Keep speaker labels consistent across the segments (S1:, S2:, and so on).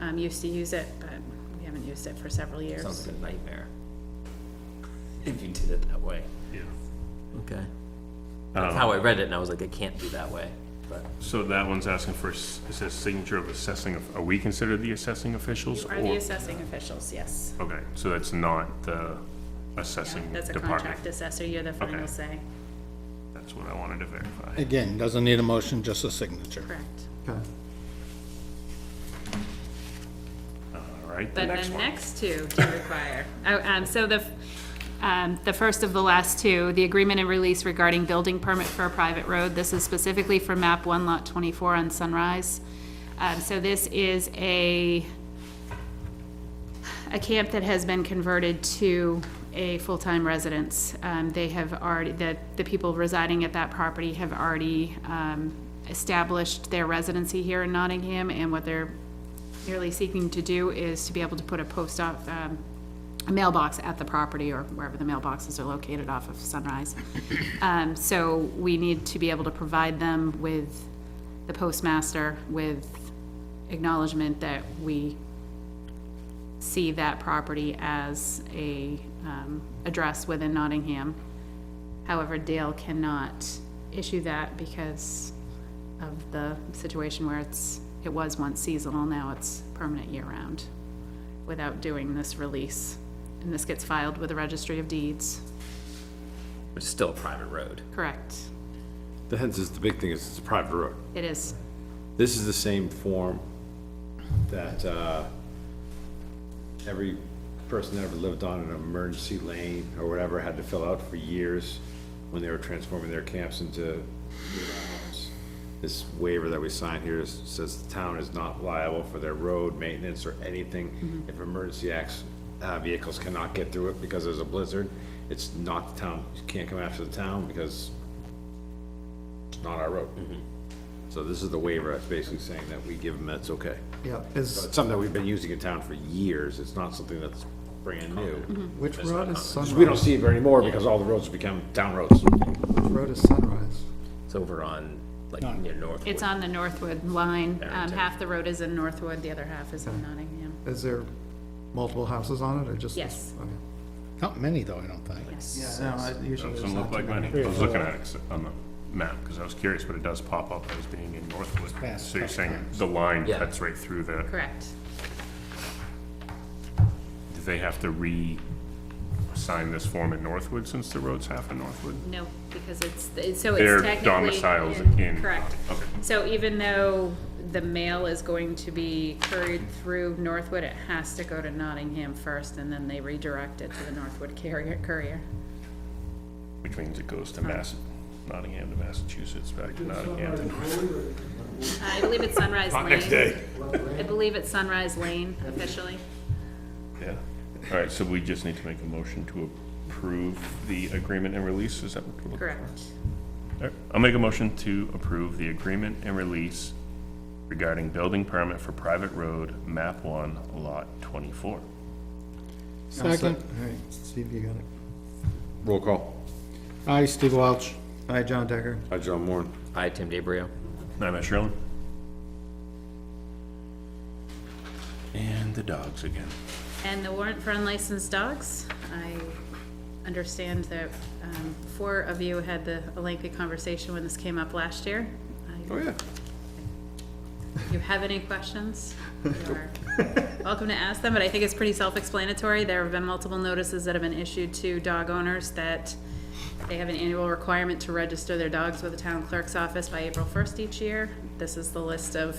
S1: um, used to use it, but we haven't used it for several
S2: Sounds
S1: years.
S2: like a nightmare. If you did it that way. Um,
S3: yeah.
S2: Okay. That's how I read it and I was like, I can't do that way, but.
S3: So that one's asking for, s- it says signature of assessing, of- are we considered the assessing officials?
S1: You are the
S3: or-
S1: assessing officials, yes.
S3: Okay, so that's not the
S1: Yeah,
S3: assessing
S1: That's a
S3: department.
S1: contract assessor, you're the final
S3: Okay.
S1: say,
S3: That's what I wanted to verify.
S4: Again, doesn't need a motion, just a signature.
S1: correct.
S3: All right, the
S1: But
S3: next
S1: the
S3: one.
S1: next two do require, oh, um, so the, f- um, the first of the last two, the agreement and release regarding building permit for a private road, this is specifically for map one lot twenty-four on Sunrise. Um, so this is a, a camp that has been converted to a full-time residence. Um, they have already, the, the people residing at that property have already, um, established their residency here in Nottingham, and what they're merely seeking to do is to be able to put a post off, um, a mailbox at the property or wherever the mailboxes are located off of Sunrise. Um, so we need to be able to provide them with the postmaster with acknowledgement that we see that property as a, um, address within Nottingham. However, Dale cannot issue that because of the situation where it's, it was once seasonal, now it's permanent year-round, without doing this release. And this gets filed with the Registry of Deeds,
S2: It's still a private road.
S1: correct?
S5: The hence is, the big thing is it's a private road.
S1: It is,
S5: This is the same form that, uh, every person that ever lived on an emergency lane or whatever had to fill out for years when they were transforming their camps into year-round homes. This waiver that we signed here is- says the town is not liable for their road maintenance or anything. If emergency acts, uh, vehicles cannot get through it because there's a blizzard, it's not the town, you can't come after the town because it's not our road. So this is the waiver, that's basically saying that we give them, that's okay.
S6: Yeah,
S5: So
S6: is,
S5: It's something that we've been using in town for years, it's not something that's brand new.
S6: which road is
S5: Because we
S6: Sunrise?
S5: don't see it very anymore because all the roads become town roads.
S6: Which road is Sunrise?
S2: It's over on, like, near Northwood.
S1: it's on the Northwood line. Um,
S2: Barrington.
S1: half the road is in Northwood, the other half is in Nottingham.
S6: Is there multiple houses on it, or just?
S1: Yes.
S6: Okay.
S4: Not many, though, I don't think.
S6: Yeah, no, I- usually there's
S3: Doesn't look
S6: not
S3: like
S6: too many.
S3: many. I was looking at it on the map, because I was curious, but it does pop up as being in Northwood.
S4: Fast
S3: So you're saying
S4: sometimes.
S3: the line
S2: Yeah.
S3: cuts right through the,
S1: Correct.
S3: do they have to re-sign this form in Northwood since the road's half in Northwood?
S1: No, because it's, it's- so
S3: Their
S1: it's technically.
S3: domiciles in-
S1: Correct.
S3: okay.
S1: So even though the mail is going to be carried through Northwood, it has to go to Nottingham first, and then they redirect it to the Northwood carrier, courier.
S3: Which means it goes to Mass, Nottingham to Massachusetts, back to Nottingham to Northwood.
S1: I believe it's Sunrise Lane.
S3: Not next day.
S1: I believe it's Sunrise Lane officially.
S3: Yeah. All right, so we just need to make a motion to approve the agreement and release, is that what we're looking for?
S1: Correct.
S3: All right, I'll make a motion to approve the agreement and release regarding building permit for private road, map one, lot twenty-four.
S4: Second.
S6: All right, Steve, you got it.
S5: Roll call.
S4: Aye, Steve Welch.
S6: Hi, John Decker.
S5: Hi, John Moore.
S2: Hi, Tim DeBrio.
S3: I'm Matt Shrillen. And the dogs again.
S1: And the warrant for unlicensed dogs, I understand that um, four of you had the a lengthy conversation when this came up last year. I-
S5: Oh, yeah.
S1: If you have any questions, you're welcome to ask them, but I think it's pretty self-explanatory. There have been multiple notices that have been issued to dog owners that they have an annual requirement to register their dogs with the town clerk's office by April first each year. This is the list of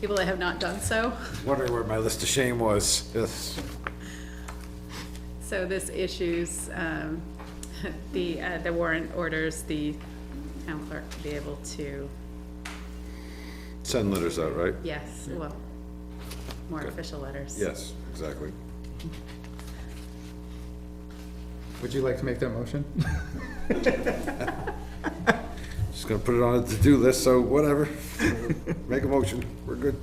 S1: people that have not done so.
S5: Wondering where my list of shame was. Yes.
S1: So this issues, um, the, uh, the warrant orders the town clerk to be able to,
S5: Send letters out, right?
S1: yes, well, more official letters.
S5: Yes, exactly.
S6: Would you like to make that motion?
S5: Just gonna put it on a to-do list, so whatever. Make a motion, we're good.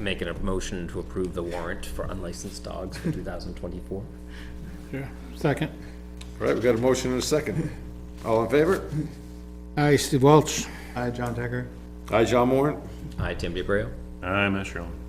S2: Making a motion to approve the warrant for unlicensed dogs for two thousand twenty-four.
S4: Yeah. Second.
S5: All right, we got a motion and a second. All in favor?
S4: Aye, Steve Welch.
S6: Hi, John Decker.
S5: Hi, John Moore.
S2: Hi, Tim DeBrio.
S3: I'm Matt Shrillen.